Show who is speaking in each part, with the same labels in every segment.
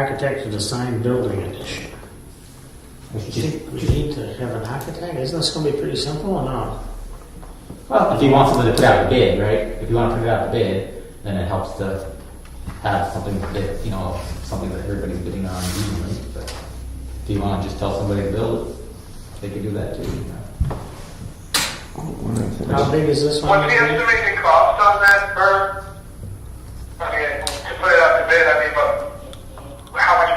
Speaker 1: architect to design building addition. Do you think we need to have an architect? Isn't this gonna be pretty simple or not?
Speaker 2: Well, if you want something to put out a bid, right? If you want to put it out a bid, then it helps to have something that, you know, something that everybody's bidding on evenly. But if you want to just tell somebody to build it, they can do that too. you know.
Speaker 1: How big is this one?
Speaker 3: What's the
Speaker 1: gonna
Speaker 3: estimated cost on that per? I mean, to put it out to bid, I mean, but how much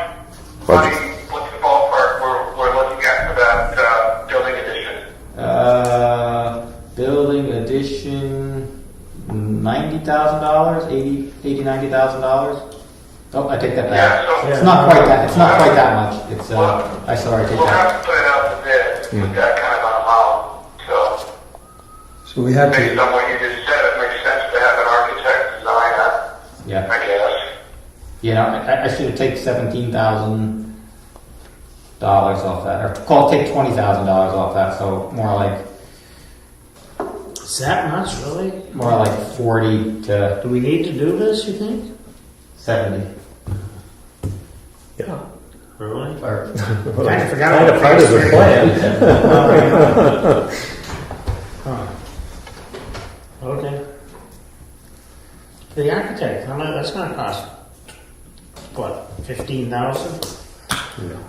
Speaker 3: money, what's the ballpark we're, we're looking at for that, uh, building addition?
Speaker 2: Uh, building addition, ninety thousand dollars, eighty, eighty, ninety thousand dollars. Oh, I take that
Speaker 3: Yeah,
Speaker 2: back.
Speaker 3: so
Speaker 2: It's not quite that, it's not quite that much. It's, uh, I sorry, I take
Speaker 3: we'll
Speaker 2: that.
Speaker 3: have to put it out to bid with that kind of amount. So
Speaker 4: So we have
Speaker 3: based
Speaker 4: to,
Speaker 3: on what you just said, it makes sense to have an architect design that,
Speaker 2: Yeah.
Speaker 3: I guess.
Speaker 2: You know, I, I should have taken seventeen thousand dollars off that, or call take twenty thousand dollars off that. So more like
Speaker 1: be? Is that much, really?
Speaker 2: more like forty to
Speaker 1: Do we need to do this, you think?
Speaker 2: seventy.
Speaker 1: Really?
Speaker 2: Or
Speaker 1: Kinda forgot.
Speaker 5: Kind of part of the plan.
Speaker 1: Huh. Okay. The architect, how much, that's gonna cost, what, fifteen thousand?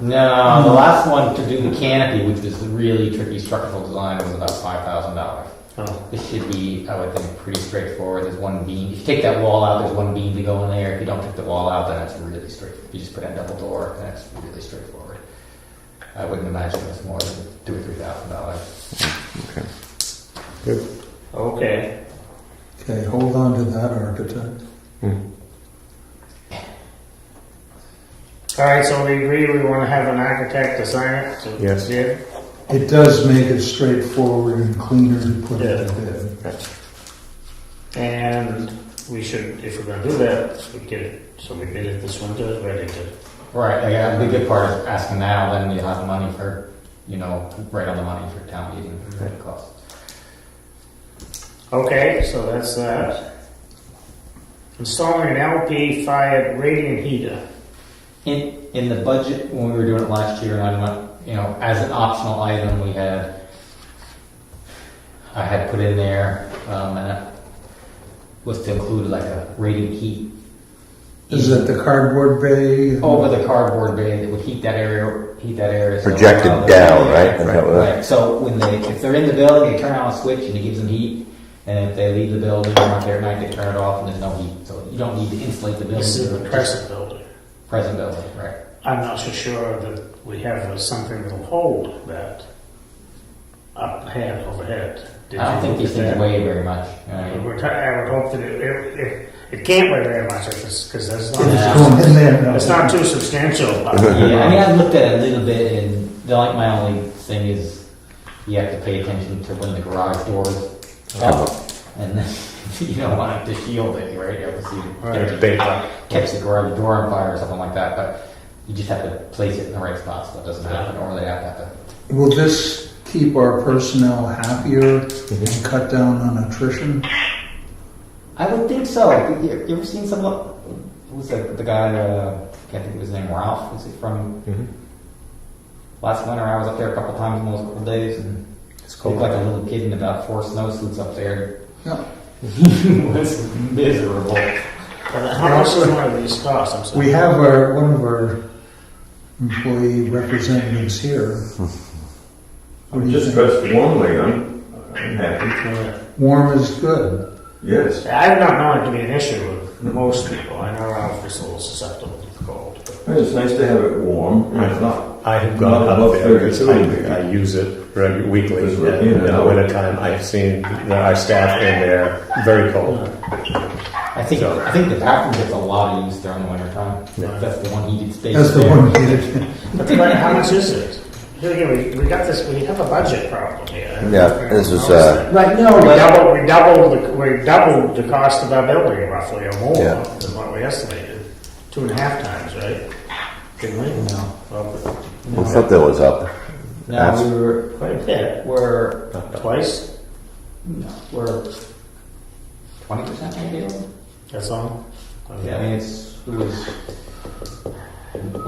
Speaker 2: no, the last one to do the canopy, which is really tricky structural design, was about five thousand dollars.
Speaker 1: Oh,
Speaker 2: This should be, I would think, pretty straightforward. There's one beam. If you take that wall out, there's one beam to go in there. If you don't take the wall out, then it's really straight. If you just put in a double door, then it's really straightforward. I wouldn't imagine it's more than two or three thousand dollars.
Speaker 5: Good.
Speaker 1: okay.
Speaker 4: okay, hold on to that architect.
Speaker 1: All right, so we agree we wanna have an architect design it to
Speaker 5: Yes.
Speaker 1: bid?
Speaker 4: It does make it straightforward and cleaner to put it to bid.
Speaker 1: And we should, if we're gonna do that, we get it, so we bid it this winter, it's ready to.
Speaker 2: Right. Like, uh, the good part is asking now, then you have the money for, you know, right on the money for town meeting for the cost.
Speaker 1: Okay, so that's that. Installing an LP fired radiant heater.
Speaker 2: In, in the budget, when we were doing it last year, and I went, you know, as an optional item, we had, I had put in there, um, and it was to include like a radiant heat.
Speaker 4: Is it the cardboard bay?
Speaker 2: Over the cardboard bay that would heat that area, heat that area. so-
Speaker 6: Projected down, right? Is that what-
Speaker 2: Right, so when they, if they're in the building, they turn on a switch and it gives them heat, and if they leave the building, they're not there at night, they turn it off and there's no heat, so you don't need to insulate the building.
Speaker 1: This is the
Speaker 2: Just
Speaker 1: present building.
Speaker 2: Present building, right.
Speaker 1: I'm not so sure that we have something that'll hold that up ahead, overhead. Did
Speaker 2: I
Speaker 1: you
Speaker 2: don't think
Speaker 1: look
Speaker 2: these
Speaker 1: at that?
Speaker 2: things weigh very much. you know what I mean?
Speaker 1: We're try- I would hope that it, it, it- it can't weigh very much if it's, because that's
Speaker 4: If
Speaker 1: not,
Speaker 4: it's going in there, no.
Speaker 1: it's not too substantial.
Speaker 2: Yeah, I mean, I've looked at it a little bit, and the, like my only thing is you have to pay attention to when the garage doors up, and then you don't want it to shield it, right? You obviously
Speaker 1: Right.
Speaker 2: catch, catch the garage door on fire or something like that, but you just have to place it in the right spot so it doesn't happen, or they have to. Have to
Speaker 4: Will this keep our personnel happier and cut down on attrition?
Speaker 2: I would think so. You, you ever seen someone? Who was that, the guy? Uh, I can't think of his name. Ralph. Was he from? Last winter, I was up there a couple times in those couple days, and it's cold. Like a little kid in about four snowsuits up there.
Speaker 4: Yeah.
Speaker 2: He was miserable.
Speaker 1: But How much is one of these cost? I'm sorry.
Speaker 4: We have our, one of our employee representatives here. What do
Speaker 7: I'm
Speaker 4: you
Speaker 7: just
Speaker 4: think?
Speaker 7: dressed warmly. I'm, I'm happy.
Speaker 4: Warm is good.
Speaker 7: Yes.
Speaker 1: I've not known it to be an issue with most people. I know Ralph is a little susceptible to the cold. but-
Speaker 7: It's nice to have it warm. It's not.
Speaker 5: I have gone
Speaker 7: Not
Speaker 5: up
Speaker 7: above
Speaker 5: there.
Speaker 7: 32.
Speaker 5: I, I use it regu- weekly.
Speaker 7: Because we're
Speaker 5: And
Speaker 7: in
Speaker 5: in the
Speaker 7: now.
Speaker 5: wintertime, I've seen that our staff in there very cold.
Speaker 2: I think I think the bathroom gets a lot of use during the winter time. That's the one heated space.
Speaker 4: That's the
Speaker 2: there.
Speaker 4: one needed.
Speaker 1: But the question, how much is it? Here again, we, we got this, we have a budget problem here.
Speaker 6: Yeah, this is, uh,
Speaker 2: Right. No,
Speaker 1: We
Speaker 2: but
Speaker 1: doubled, we doubled, the- we doubled the cost of our building roughly or more
Speaker 6: Yeah.
Speaker 1: than what we estimated. Two and a half times, right? Didn't we?
Speaker 2: No.
Speaker 1: Well,
Speaker 6: I thought that was up.
Speaker 2: no, we were
Speaker 1: Quite a bit,
Speaker 2: we're
Speaker 1: twice,
Speaker 2: we're twenty percent maybe.
Speaker 1: that's all?
Speaker 2: Yeah, I mean, it's, it was,